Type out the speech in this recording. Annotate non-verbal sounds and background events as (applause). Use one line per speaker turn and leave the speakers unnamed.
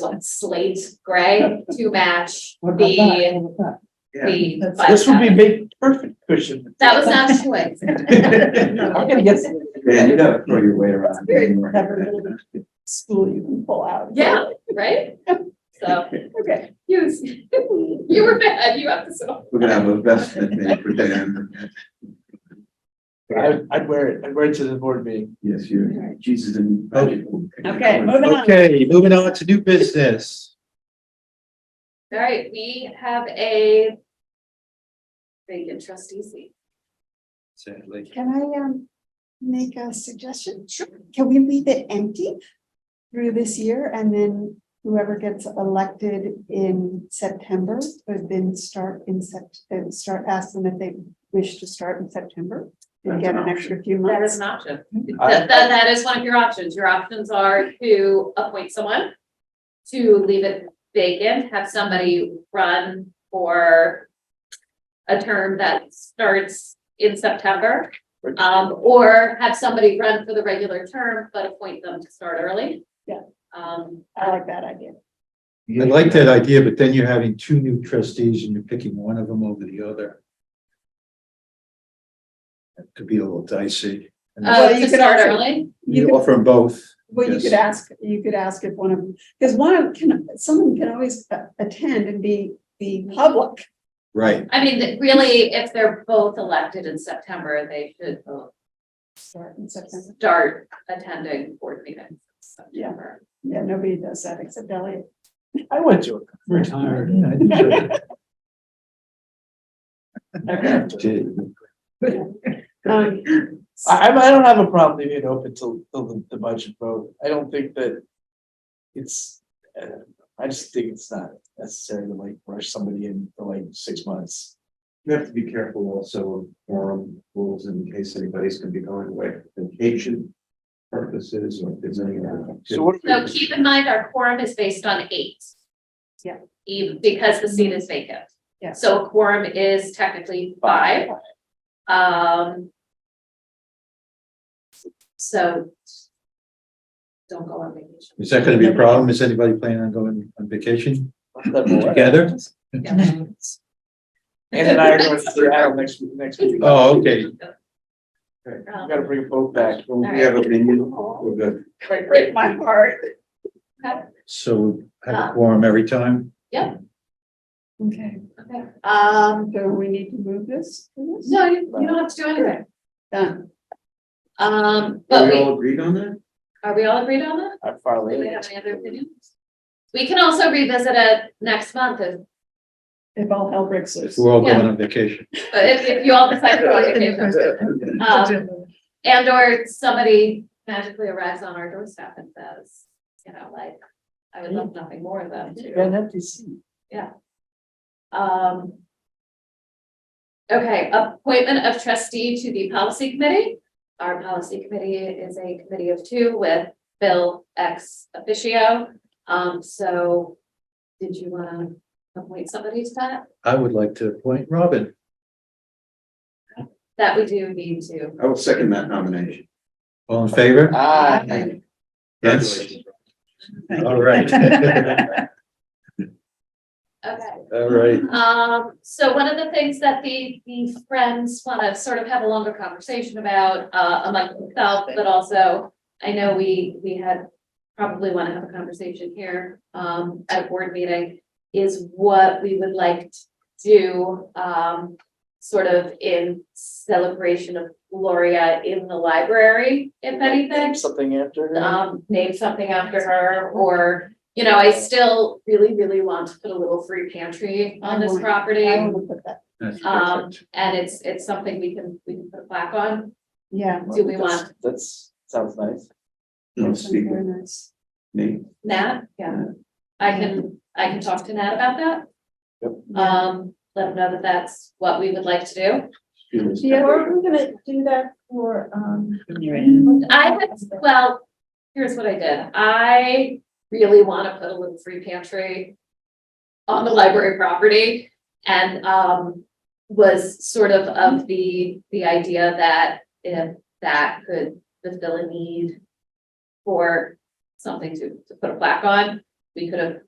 one slate gray to match
What about that?
the,
What about
(laughs) Yeah.
the.
This
five
This would be
thousand.
big, perfect cushion.
That was not a choice. (laughs)
(laughs)
I'm gonna get some
Yeah, you never throw your weight around. anymore.
Never really. school you can pull out.
Yeah, right? So,
Okay.
(laughs) you, you were bad, you have to settle.
We're gonna have a vestment made for Dan.
I'd, I'd wear it, I'd wear it to the board meeting. Oh.
Yes, you, Jesus and. Okay,
Okay, moving on to new business.
All right, we have a vacant trustee seat.
Sadly.
Can I um make a suggestion? Sure. Can we leave it empty through this year and then whoever gets elected in September would then start in Sept, uh, start asking if they wish to start in September and
That's
get
an
an
option.
extra few
That is
months.
an option.
I-
That, that- that is one of your options. Your options are to appoint someone, to leave it vacant, have somebody run for a term that starts in September, um, or have somebody run for the regular term, but appoint them to start early.
Yeah. Uh,
Um,
I like that idea.
I like that idea, but then you're having two new trustees and you're picking one of them over the other. That could be a little dicey. And
uh,
Well, you
to
could
start
also-
early.
You
You
could,
offer them both.
well, you
yes.
could ask, you could ask if one of, because one of, can, someone can always uh, attend and be the public.
Right,
I mean, th- really, if they're both elected in September, they should both
Start in September.
start attending board meetings. in September.
Yeah, nobody does that except Elliot.
I went to it. Retired.
Yeah, I think so.
Okay.
(laughs)
Did.
Um,
I, I'm- I don't have a problem leaving it open till, till the, the budget vote. I don't think that it's, uh, I just think it's not necessary to like rush somebody in for like six months.
You have to be careful also of forum rules in case anybody's gonna be going away for vacation purposes or if there's any.
So what?
So keep in mind, our quorum is based on eight.
Yeah.
Even because the seat is vacant.
Yeah.
So quorum is technically five, um. So. Don't go on vacation.
Is that gonna be a problem? Is anybody planning on going on vacation together?
Yeah.
Ann and I are going to Seattle next, week- next week.
Oh,
We
okay.
Um,
Gotta bring a boat back.
Well, we have a menu, we're good.
Break break my heart.
So have a quorum every time?
Okay,
okay.
um, do we need to move this?
No, you, you don't have to do anything.
Done.
Um,
Are
but
we
we,
all agreed on that?
are we all agreed on that?
I'm far
Do we
later.
have any other opinions? We can also revisit it next month if,
If all hell breaks loose. (laughs)
We're all going on vacation.
if, if you all decide to go on vacation.
(laughs)
Um, and or somebody magically arrives on our doorstep and says, you know, like, I would love nothing more than
You
to,
gotta have to see.
um. Okay, appointment of trustee to the policy committee. Our policy committee is a committee of two with Bill ex officio. Um, so did you wanna appoint somebody to that?
I would like to appoint Robin.
That we do need to.
I will second that nomination.
All in favor?
uh,
Ah,
Yes. All right.
Okay.
(laughs) All right.
Um, so one of the things that the, the friends wanna sort of have a longer conversation about, uh, among themselves, but also. I know we, we had, probably wanna have a conversation here, um, at board meeting, is what we would like to do, um. Sort of in celebration of Gloria in the library, if anything
Something after. her.
um, name something after her, or, you know, I still really, really want to put a little free pantry on this property.
I will put that,
That's
Um,
perfect.
and it's, it's something we can, we can put a plaque on.
yeah.
do we
That's-
want-
That's, sounds nice.
No,
that's
speak
Very
with
nice.
me.
Nat, yeah, I can, I can talk to Nat about that. Um, let him know that that's what we would like to do.
Yeah,
gonna do that for, um.
I had, well, here's what I did. I really wanna put a little free pantry on the library property and, um, was sort of of the, the idea that if that could fulfill a need for something to, to put a plaque on, we we could have